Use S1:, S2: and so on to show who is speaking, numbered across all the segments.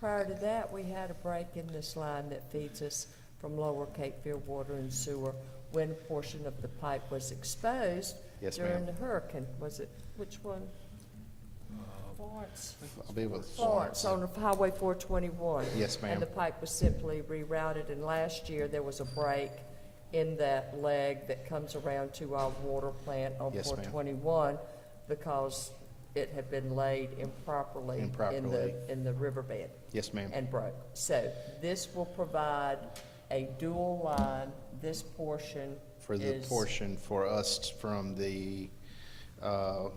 S1: Prior to that, we had a break in this line that feeds us from Lower Cape Fear Water and Sewer when a portion of the pipe was exposed
S2: Yes,
S1: during
S2: ma'am.
S1: the hurricane. Was it, which one? Florence.
S2: I'll be with
S1: Florence on Highway 421.
S2: Yes, ma'am.
S1: And the pipe was simply rerouted, and last year, there was a break in that leg that comes around to our water plant on
S2: Yes, ma'am.
S1: 421 because it had been laid improperly in
S2: Improperly.
S1: the, in the riverbed
S2: Yes, ma'am.
S1: and broke. So this will provide a dual line. This portion
S2: For the
S1: is-
S2: portion for us from the, uh,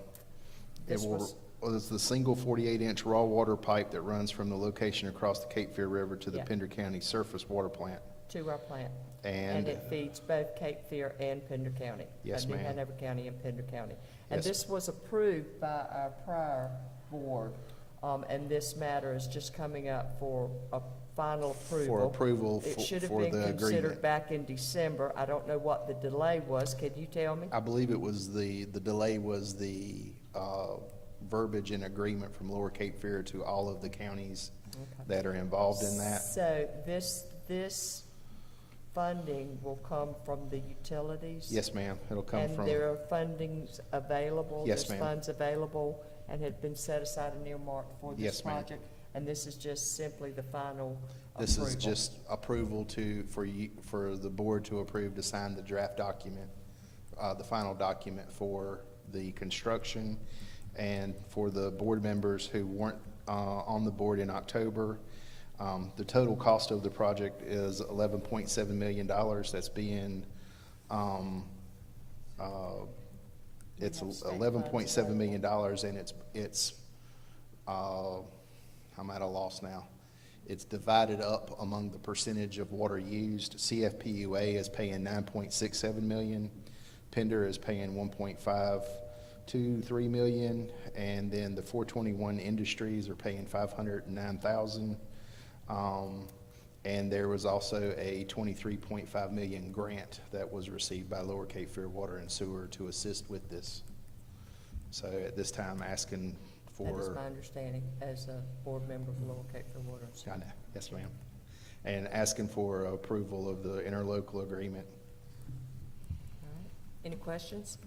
S2: it
S1: This
S2: will,
S1: was-
S2: well, it's the single 48-inch raw water pipe that runs from the location across the Cape Fear River to the
S1: Yeah.
S2: Pender County Surface Water Plant.
S1: To our plant.
S2: And-
S1: it feeds both Cape Fear and Pender County.
S2: Yes,
S1: I mean,
S2: ma'am.
S1: Hanover County and Pender County. And
S2: Yes.
S1: this was approved by our prior board, um, and this matter is just coming up for a final approval.
S2: approval
S1: It
S2: for-
S1: should have
S2: for
S1: been
S2: the
S1: considered
S2: agreement.
S1: back in December. I don't know what the delay was. Can you tell me?
S2: I believe it was the, the delay was the uh, verbiage in agreement from Lower Cape Fear to all of the counties that are involved in that.
S1: So this, this funding will come from the utilities?
S2: Yes, ma'am, it'll come
S1: And
S2: from,
S1: there are fundings available?
S2: Yes,
S1: There's
S2: ma'am.
S1: funds available and had been set aside and earmarked for this
S2: Yes, ma'am.
S1: project? And this is just simply the final
S2: this
S1: approval?
S2: is just approval to, for you, for the board to approve to sign the draft document, uh, the final document for the construction and for the board members who weren't uh, on the board in October. Um, The total cost of the project is eleven point seven million dollars. That's being, um, uh, it's
S1: have state
S2: eleven point
S1: funds
S2: seven million dollars and it's, it's, uh, I'm at a loss now. It's divided up among the percentage of water used. CFPUA is paying nine point six seven million. Pender is paying one point five two three million. And then the four twenty-one industries are paying five hundred and nine thousand. Um, and there was also a 23.5 million grant that was received by Lower Cape Fear Water and Sewer to assist with this. So at this time, asking
S1: That is
S2: for.
S1: my understanding as a board member of Lower Cape Fear Water and Sewer.
S2: I know. yes, ma'am. And asking for approval of the interlocal agreement.
S1: All right. Any questions?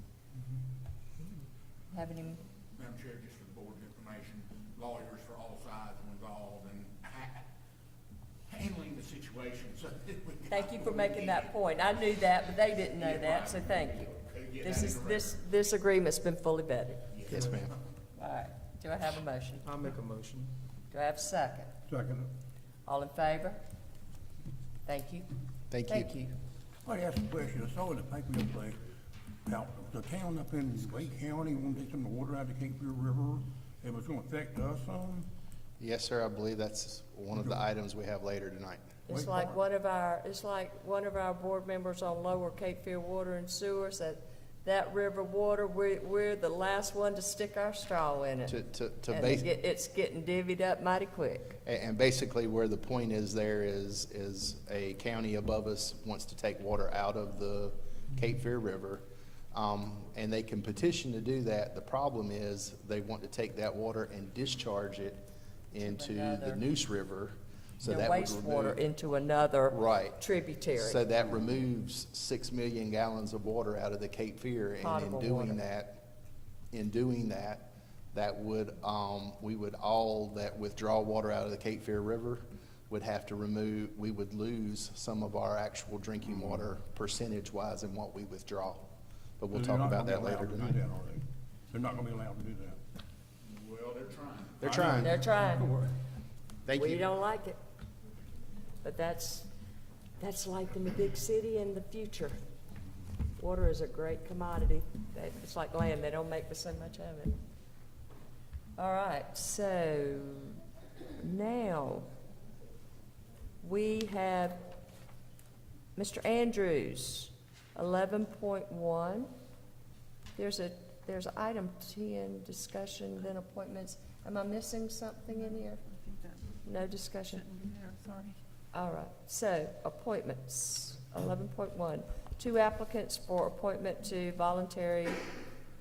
S1: Have any,
S3: Madam Chair, just for the board's information, lawyers for all sides are involved in ha- handling the situation, so. that we got
S1: thank you for
S3: what we
S1: making that
S3: needed.
S1: point. I knew that, but they didn't know
S3: Yeah,
S1: that,
S3: right.
S1: so thank
S3: Okay,
S1: you.
S3: get
S1: This
S3: that
S1: is,
S3: in the
S1: this, this agreement's been fully vetted.
S2: Yes, ma'am.
S1: All right, do I have a motion?
S4: I'll make a motion.
S1: Do I have a second?
S4: Second.
S1: All in favor? Thank you.
S2: Thank you.
S1: Thank you.
S5: I'd ask a question, I saw in the paper the other day, about the town up in Lake County wanted to take some water out of the Cape Fear River, it was gonna affect us some.
S2: Yes, sir, I believe that's one of the items we have later tonight.
S1: It's
S5: Wait
S1: like
S5: for it.
S1: one of our, it's like one of our board members on Lower Cape Fear Water and Sewers, that, that river water, we're, we're the last one to stick our straw in it.
S2: To, to, to
S1: And
S2: base,
S1: it get- it's getting divvied up mighty quick.
S2: a- and basically where the point is there is, is a county above us wants to take water out of the Cape Fear River. Um, and they can petition to do that. The problem is they want to take that water and discharge it into the
S1: another-
S2: Neuse River. So
S1: The
S2: that would remove-
S1: wastewater into another
S2: Right. So
S1: tributary.
S2: that removes six million gallons of water out of the Cape Fear, and
S1: Potable
S2: in
S1: water.
S2: doing that, in doing that, that would, um, we would all, that withdraw water out of the Cape Fear River would have to remove, we would lose some of our actual drinking
S5: Mm-hmm.
S2: water percentage-wise in what we withdraw. But we'll
S5: They're
S2: talk
S5: not
S2: about
S5: gonna
S2: that
S5: be
S2: later
S5: allowed to do
S2: tonight.
S5: that, are they? They're not gonna be allowed to do that.
S3: Well, they're trying.
S2: They're trying.
S1: They're trying.
S5: Don't worry.
S2: Thank
S1: We
S2: you.
S1: don't like it. But that's, that's life in the big city and the future. Water is a great commodity. That- It's like land, they don't make but so much of it. All right, so now, we have Mr. Andrews, eleven point one. There's a, there's item ten, discussion, then appointments. Am I missing something in here? No discussion? All right, so appointments, eleven point one. Two applicants for appointment to voluntary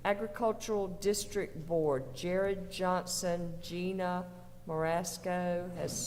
S1: agricultural district board. Jared Johnson, Gina Marasco has